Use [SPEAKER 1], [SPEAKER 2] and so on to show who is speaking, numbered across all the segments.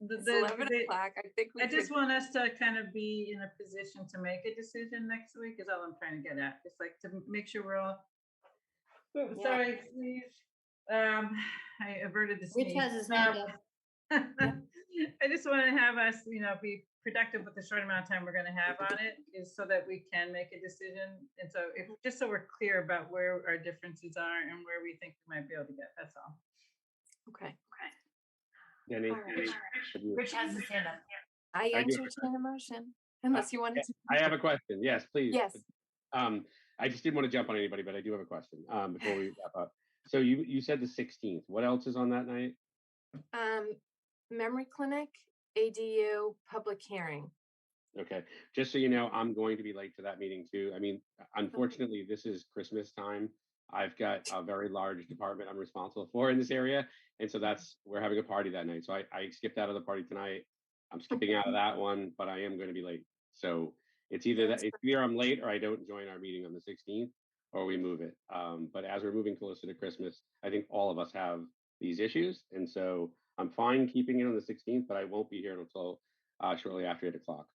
[SPEAKER 1] the-
[SPEAKER 2] It's eleven
[SPEAKER 1] the-
[SPEAKER 2] o'clock. I think we
[SPEAKER 1] I just
[SPEAKER 2] could,
[SPEAKER 1] want us to kind of be in a position to make a decision next week is all I'm trying to get at. It's like to make sure we're all. Oh,
[SPEAKER 3] Yeah.
[SPEAKER 1] Sorry, sneeze. Um, I averted the sneeze.
[SPEAKER 3] Rich has his
[SPEAKER 1] Um,
[SPEAKER 3] hand up.
[SPEAKER 1] I just want to have us, you know, be productive with the short amount of time we're going to have on it is so that we can make a decision. And so if,
[SPEAKER 3] Mm-hmm.
[SPEAKER 1] just so we're clear about where our differences are and where we think we might be able to get, that's all.
[SPEAKER 2] okay.
[SPEAKER 4] Denny,
[SPEAKER 2] All right.
[SPEAKER 4] have you-
[SPEAKER 3] Rich has his hand up.
[SPEAKER 2] I
[SPEAKER 4] I do have a
[SPEAKER 2] entertain a motion unless you wanted to.
[SPEAKER 4] I have a question. Yes, please.
[SPEAKER 2] Yes,
[SPEAKER 4] Um, I just didn't want to jump on anybody, but I do have a question, um, before we wrap up. So you, you said the sixteenth. What else is on that night?
[SPEAKER 2] um, memory clinic, ADU, public hearing.
[SPEAKER 4] Okay, just so you know, I'm going to be late to that meeting too. I mean, unfortunately, this is Christmas time. I've got a very large department I'm responsible for in this area. And so that's, we're having a party that night. So I, I skipped out of the party tonight. I'm skipping out of that one, but I am going to be late. So it's either that,
[SPEAKER 2] That's
[SPEAKER 4] it's either I'm late or I don't join our meeting on the 16th or we move it. Um, but as we're moving closer to Christmas, I think all of us have these issues. And so I'm fine keeping it on the 16th, but I won't be here until uh, shortly after eight o'clock.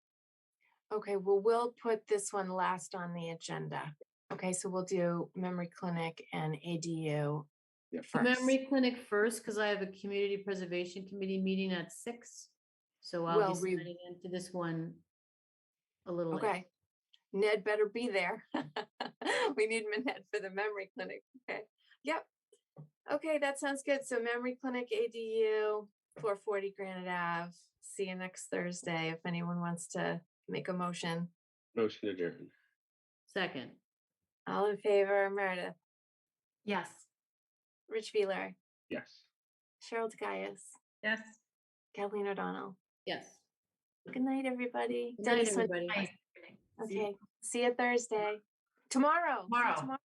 [SPEAKER 2] Okay, well, we'll put this one last on the agenda. Okay, so we'll do memory clinic and ADU
[SPEAKER 4] Yep.
[SPEAKER 2] first.
[SPEAKER 3] Memory clinic first, because I have a community preservation committee meeting at six. So I'll
[SPEAKER 2] Well,
[SPEAKER 3] be
[SPEAKER 2] we-
[SPEAKER 3] signing into this one a little late.
[SPEAKER 2] Okay. Ned better be there. We need Minette for the memory clinic. Okay, yep. Okay, that sounds good. So memory clinic ADU, four forty Granite Ave. See you next Thursday if anyone wants to make a motion.
[SPEAKER 4] Motion adjourned.
[SPEAKER 3] Second,
[SPEAKER 2] All in favor, Meredith,
[SPEAKER 3] yes.
[SPEAKER 2] Rich Wheeler,
[SPEAKER 4] Yes.
[SPEAKER 2] Cheryl DeGaius,
[SPEAKER 1] Yes?
[SPEAKER 2] Kathleen O'Donnell.
[SPEAKER 3] Yes.
[SPEAKER 2] Good night, everybody.
[SPEAKER 3] Good night,
[SPEAKER 2] Dennis, when-
[SPEAKER 3] everybody.
[SPEAKER 2] Okay, see you Thursday. Tomorrow. see you
[SPEAKER 1] Tomorrow.